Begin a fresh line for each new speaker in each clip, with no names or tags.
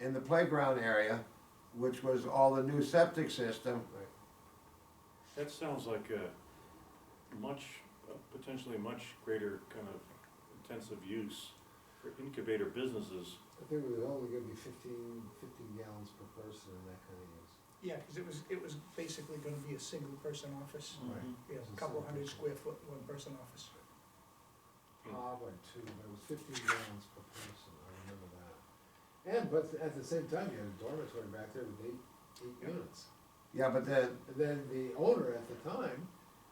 in the playground area, which was all the new septic system,
That sounds like a much, a potentially much greater kind of intensive use for incubator businesses.
I think it was only gonna be fifteen, fifteen gallons per person and that kind of use.
Yeah, because it was, it was basically gonna be a single person office,
Right.
yeah, a couple hundred square foot, one person office.
Hmm.
Probably two, but it was fifteen gallons per person, I remember that. And, but at the same time, you had a dormitory back there with eight, eight
Yeah.
units.
yeah, but then,
And then the owner at the time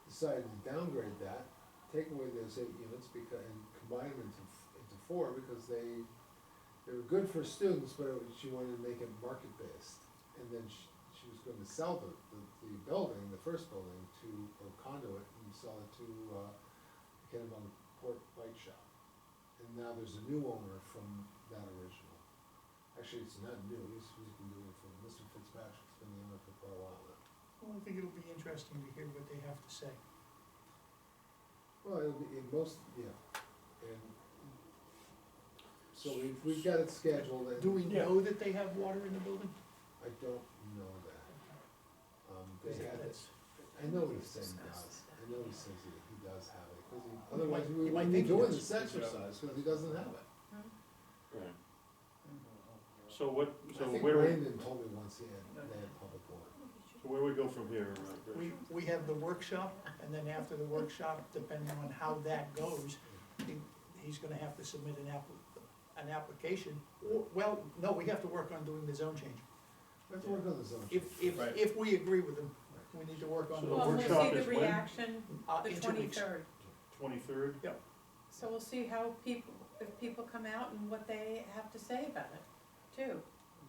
decided to downgrade that, take away those eight units because, and combine them into, into four because they, they were good for students, but it was- she wanted to make it market-based. And then she, she was going to sell the, the, the building, the first building, to, or conduit, and sell it to, uh, Kennebunk Port Bike Shop. And now there's a new owner from that original. Actually, it's not new, he's, he's been doing it for, Mr. Fitzpatrick's been the owner for quite a while now.
Well, I think it'll be interesting to hear what they have to say.
Well, it'll be in most, yeah, and so we've, we've got it scheduled and
Do we
Yeah.
know that they have water in the building?
I don't know that. Um, they
Is that-
had it,
that's-
I know he says he does, I know he says he, he does have it, cause he, otherwise
might-
we
you might
wouldn't be
think he
doing
does.
this exercise, cause he doesn't have it.
Right. So what, so
I think
where, we-
Brandon told me once he had, they had public water.
so where we go from here? uh, Rich?
We, we have the workshop, and then after the workshop, depending on how that goes, he- he's gonna have to submit an app, an application. Or- Well, no, we have to work on doing the zone change.
We have to work on the zone.
If, if,
Right.
if we agree with them, we need to work on.
So the
Well, we'll
workshop
see the
is when?
reaction
uh,
the
in two weeks.
twenty-third,
Twenty-third?
so we'll see how people, if people come out and what they have to say about it, too.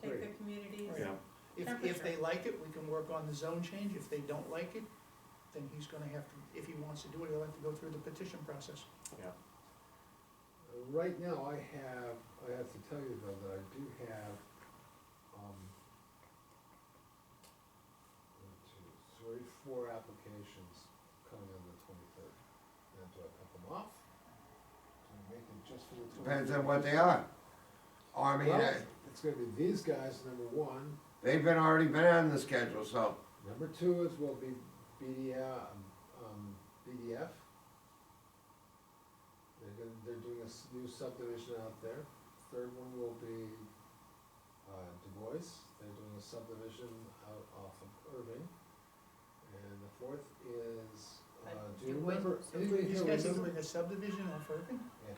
Take the
Great.
communities,
Yeah,
If, if they like it, we can work on the zone change, if they don't like it, then he's gonna have to, if he wants to do it, he'll have to go through the petition process.
Uh, Right now, I have, I have to tell you though, that I do have, um, one, two, three, four applications coming on the twenty-third. Now, do I cut them off? Do I make it just for the twenty-third?
depends on what they are. Army,
Well,
they-
It's gonna be these guys, number one,
they've been, already been on the schedule, so,
Number two is will be BD, um, um, BDF. They're gonna, they're doing a s- new subdivision out there. Third one will be, uh, Du Bois, they're doing a subdivision out off of Irving. And the fourth is, uh,
Uh,
do you
Du Bois
remember, anybody
These
here
guys are
remember?
doing a subdivision off Irving?
okay.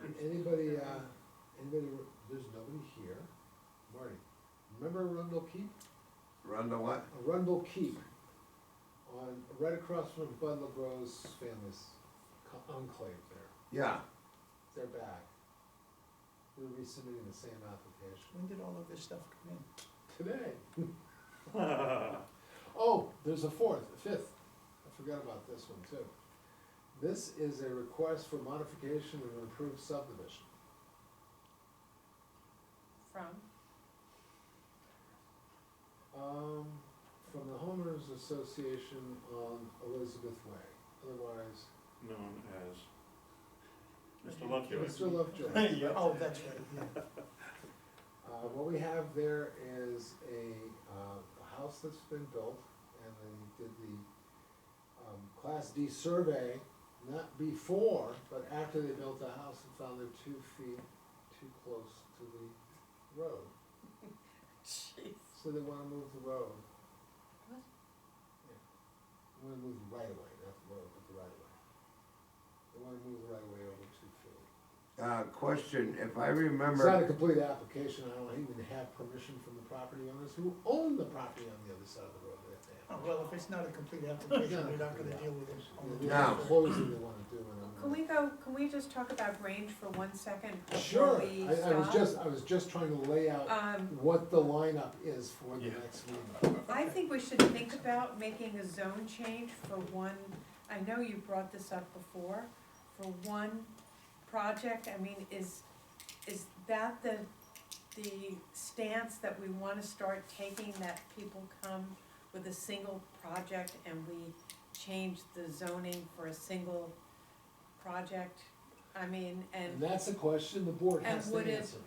And anybody, uh, anybody, re- there's nobody here. Marty, remember Arundel Keep?
run to what?
Arundel Keep, on, right across from Bud LeBrow's family's co- enclave there,
Yeah,
they're back. They're resubmitting the same application
When did all of this stuff come in?
today.
Right,
Oh, there's a fourth, a fifth, I forgot about this one too. This is a request for modification of an approved subdivision.
From,
Um, from the homeowners association on Elizabeth Way, otherwise,
known as Mr. Lovejoy.
Mr. Lovejoy.
Yeah.
Oh, that's right, yeah.
Uh, what we have there is a, uh, a house that's been built, and they did the, um, Class D survey, not before, but after they built the house and found they're two feet too close to the road,
jeez,
so they wanna move the road.
What?
Yeah. They wanna move the right away, not the road, but the right away. They wanna move the right away over two feet.
uh, question, if I
It's not a
remember,
complete application, I don't even have permission from the property owners who own the property on the other side of the road that they have.
Oh, Well, if it's not a complete application, we're not gonna deal with it. on the-
No.
They're closing they wanna do and I'm.
can we go, can we just talk about range for one second before
Sure,
we
I, I was
stop?
just, I was just trying to lay out
Um,
what the lineup is for the
Yeah.
next meeting.
I think we should think about making a zone change for one, I know you brought this up before, for one project, I mean, is, is that the, the stance that we wanna start taking, that people come with a single project and we change the zoning for a single project? I mean,
And
and,
that's a question the board
and
has to
would it,
answer.